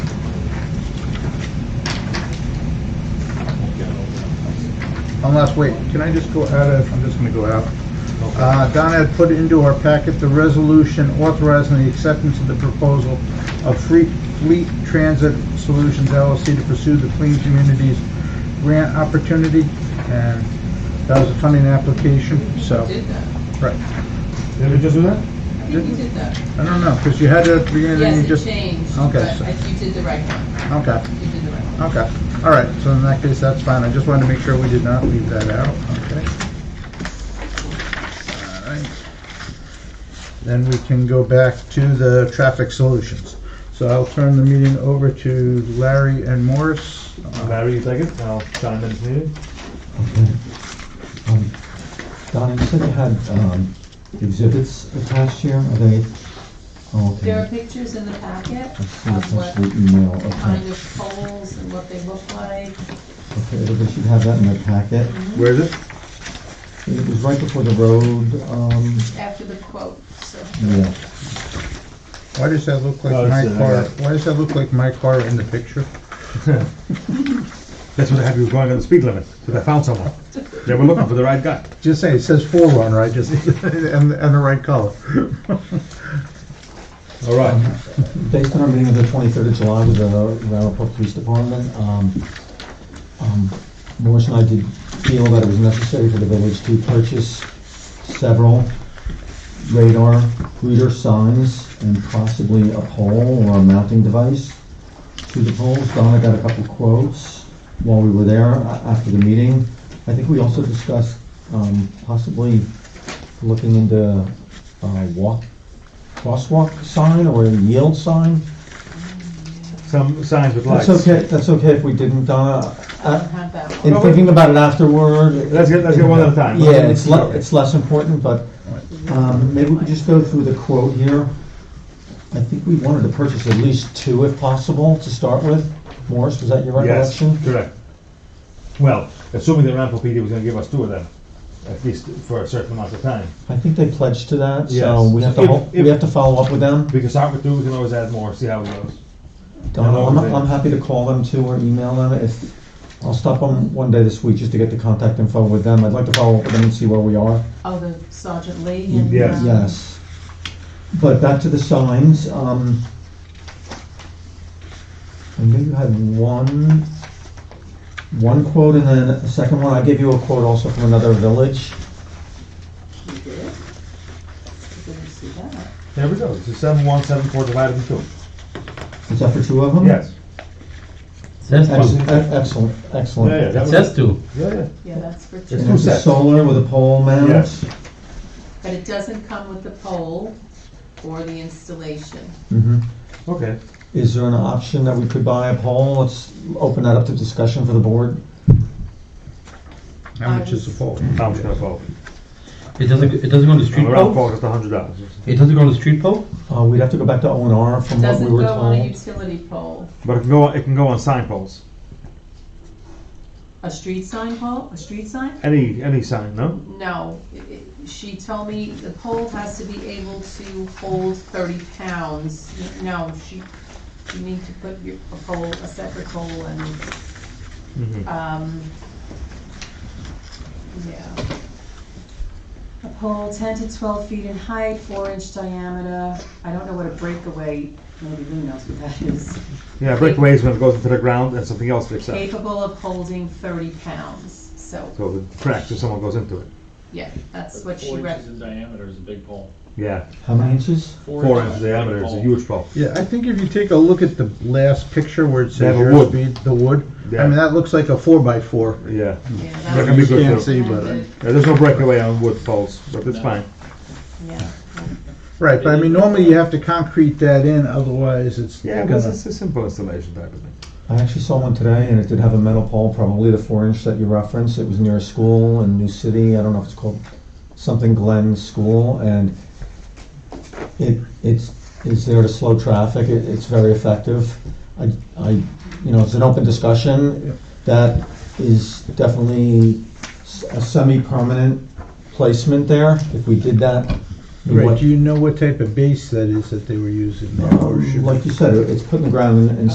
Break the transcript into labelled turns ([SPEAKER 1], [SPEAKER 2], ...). [SPEAKER 1] unless, wait, can I just go out of, I'm just gonna go out. Uh, Donna had put into our packet the resolution authorizing the acceptance of the proposal of Free Fleet Transit Solutions LLC to pursue the Clean Communities Grant Opportunity, and that was a funding application, so,
[SPEAKER 2] You did that.
[SPEAKER 3] Did we just do that?
[SPEAKER 2] I think you did that.
[SPEAKER 1] I don't know, because you had to, you
[SPEAKER 2] Yes, it
[SPEAKER 1] just,
[SPEAKER 2] changed,
[SPEAKER 1] okay,
[SPEAKER 2] but
[SPEAKER 1] so-
[SPEAKER 2] I- you did the right one.
[SPEAKER 1] okay.
[SPEAKER 2] You did the right one.
[SPEAKER 1] Okay, all right, so in that case, that's fine, I just wanted to make sure we did not leave that out, okay? All right. Then we can go back to the traffic solutions. So I'll turn the meeting over to Larry and Morris. Uh,
[SPEAKER 3] Larry, you take it, I'll chime in if needed.
[SPEAKER 4] Um, Donna, you said you had um, exhibits attached here, are they? Oh, okay.
[SPEAKER 2] There are pictures in the packet
[SPEAKER 4] I see,
[SPEAKER 2] of
[SPEAKER 4] attached
[SPEAKER 2] what
[SPEAKER 4] to the email,
[SPEAKER 2] kind
[SPEAKER 4] okay.
[SPEAKER 2] of poles and what they look like.
[SPEAKER 4] Okay, everybody should have that in their packet.
[SPEAKER 3] Mm-hmm.
[SPEAKER 1] Where is it?
[SPEAKER 4] It was right before the road, um,
[SPEAKER 2] after the quote, so.
[SPEAKER 4] yeah.
[SPEAKER 1] Why does that look like
[SPEAKER 3] Oh, it's
[SPEAKER 1] my
[SPEAKER 3] in
[SPEAKER 1] car?
[SPEAKER 3] there.
[SPEAKER 1] Why does that look like my car in the picture?
[SPEAKER 3] That's what I had, we were going on the speed limit, because I found someone. They were looking for the right guy.
[SPEAKER 1] Just say, it says Forerunner, I just, and, and the right color.
[SPEAKER 3] All right.
[SPEAKER 4] Based on our meeting of the 23rd of July with the Rappaport Police Department, um, um, Morris and I did feel that it was necessary for the village to purchase several radar reader signs and possibly a pole or a mounting device to the poles. Donna got a couple quotes while we were there a- after the meeting. I think we also discussed um, possibly looking into uh, walk, crosswalk sign or a yield sign.
[SPEAKER 3] Some signs with lights.
[SPEAKER 4] That's okay, that's okay if we didn't, Donna.
[SPEAKER 2] I
[SPEAKER 4] Uh,
[SPEAKER 2] have that one.
[SPEAKER 4] In
[SPEAKER 3] No, we-
[SPEAKER 4] thinking about it afterward.
[SPEAKER 3] Let's get, let's get one at a time.
[SPEAKER 4] Yeah, it's le, it's less important, but, um, maybe we could just go through the quote here. I think we wanted to purchase at least two if possible to start with. Morris, was that your
[SPEAKER 3] Yes,
[SPEAKER 4] recollection?
[SPEAKER 3] correct. Well, assuming that Rampo PD was gonna give us two of them, at least for a certain amount of time.
[SPEAKER 4] I think they pledged to that, so
[SPEAKER 3] Yes.
[SPEAKER 4] we have to,
[SPEAKER 3] If-
[SPEAKER 4] hol-
[SPEAKER 3] if-
[SPEAKER 4] we have to follow up with them.
[SPEAKER 3] We can start with two, we can always add more, see how it goes.
[SPEAKER 4] Donna,
[SPEAKER 3] Hello,
[SPEAKER 4] Uh, I'm,
[SPEAKER 3] Vin.
[SPEAKER 4] I'm happy to call them too or email them if, I'll stop on one day this week just to get the contact info with them. I'd like to follow up with them and see where we are.
[SPEAKER 2] Oh, the Sergeant Lee and.
[SPEAKER 3] Yes.
[SPEAKER 2] um,
[SPEAKER 4] Yes. But back to the signs, um, I knew you had one, one quote and then a second one. I gave you a quote also from another village.
[SPEAKER 2] You did? I didn't see that.
[SPEAKER 3] There we go, so seven, one, seven, four divided into two.
[SPEAKER 4] Is that for two of them?
[SPEAKER 3] Yes.
[SPEAKER 5] That's
[SPEAKER 4] Ex-
[SPEAKER 5] two.
[SPEAKER 4] ex- Excellent, excellent.
[SPEAKER 3] Yeah, yeah. that
[SPEAKER 5] It
[SPEAKER 3] was-
[SPEAKER 5] says two.
[SPEAKER 3] Yeah, yeah.
[SPEAKER 2] Yeah, that's for
[SPEAKER 3] It's
[SPEAKER 2] two,
[SPEAKER 4] And it's a
[SPEAKER 3] sets.
[SPEAKER 4] solar with a pole mount?
[SPEAKER 3] Yes.
[SPEAKER 2] but it doesn't come with the pole or the installation.
[SPEAKER 4] hmm
[SPEAKER 3] Okay.
[SPEAKER 4] Is there an option that we could buy a pole? Let's open that up to discussion for the board.
[SPEAKER 1] How much is the pole?
[SPEAKER 3] How much gonna fall?
[SPEAKER 5] It doesn't, it doesn't go on the street
[SPEAKER 3] Around
[SPEAKER 5] pole?
[SPEAKER 3] four, just a hundred dollars.
[SPEAKER 5] It doesn't go on the street pole?
[SPEAKER 4] Uh, we'd have to go back to O and R from what we
[SPEAKER 2] Doesn't
[SPEAKER 4] were
[SPEAKER 2] go on a
[SPEAKER 4] told.
[SPEAKER 2] utility pole,
[SPEAKER 3] But it can go, it can go on sign poles.
[SPEAKER 2] a street sign pole, a street sign?
[SPEAKER 3] Any, any sign, no?
[SPEAKER 2] No, it- it- she told me the pole has to be able to hold thirty pounds. No, she, you need to put your, a pole, a separate pole and,
[SPEAKER 3] Mm-hmm.
[SPEAKER 2] um, yeah. A pole ten to twelve feet in height, four inch diameter. I don't know what a breakaway, maybe Lou knows what that is.
[SPEAKER 3] Yeah, breakaways when it goes into the ground and something else picks up.
[SPEAKER 2] Capable of holding thirty pounds, so,
[SPEAKER 3] So it cracks if someone goes into it.
[SPEAKER 2] yeah, that's what she
[SPEAKER 6] Four
[SPEAKER 2] rec-
[SPEAKER 6] inches in diameter is a big pole.
[SPEAKER 3] Yeah,
[SPEAKER 4] How many inches?
[SPEAKER 3] four inches diameter is
[SPEAKER 6] pole.
[SPEAKER 3] a huge pole.
[SPEAKER 1] Yeah, I think if you take a look at the last picture where it
[SPEAKER 3] They
[SPEAKER 1] says
[SPEAKER 3] have a
[SPEAKER 1] your
[SPEAKER 3] wood.
[SPEAKER 1] speed, the wood, I
[SPEAKER 3] Yeah.
[SPEAKER 1] mean, that looks like a four by four.
[SPEAKER 3] Yeah.
[SPEAKER 2] yeah, that
[SPEAKER 3] That
[SPEAKER 2] was-
[SPEAKER 3] can be
[SPEAKER 1] You
[SPEAKER 3] good
[SPEAKER 1] can't see,
[SPEAKER 3] too.
[SPEAKER 1] but, uh,
[SPEAKER 3] Yeah, there's no breakaway on wood poles, but it's
[SPEAKER 6] No.
[SPEAKER 3] fine.
[SPEAKER 2] yeah.
[SPEAKER 1] right, but I mean, normally you have to concrete that in, otherwise it's
[SPEAKER 3] Yeah, because
[SPEAKER 1] gonna,
[SPEAKER 3] it's a simple installation type of thing.
[SPEAKER 4] I actually saw one today, and it did have a metal pole, probably the four inch that you referenced. It was near a school in New City. I don't know if it's called something Glen School, and it it's is there to slow traffic. It, it's very effective. I, I, you know, it's an open discussion. That is definitely s- a semi-permanent placement there. If we did that, we
[SPEAKER 1] right,
[SPEAKER 4] want-
[SPEAKER 1] do you know what type of base that is that they were using there? or should we-
[SPEAKER 4] like you said, it's put in the ground and, and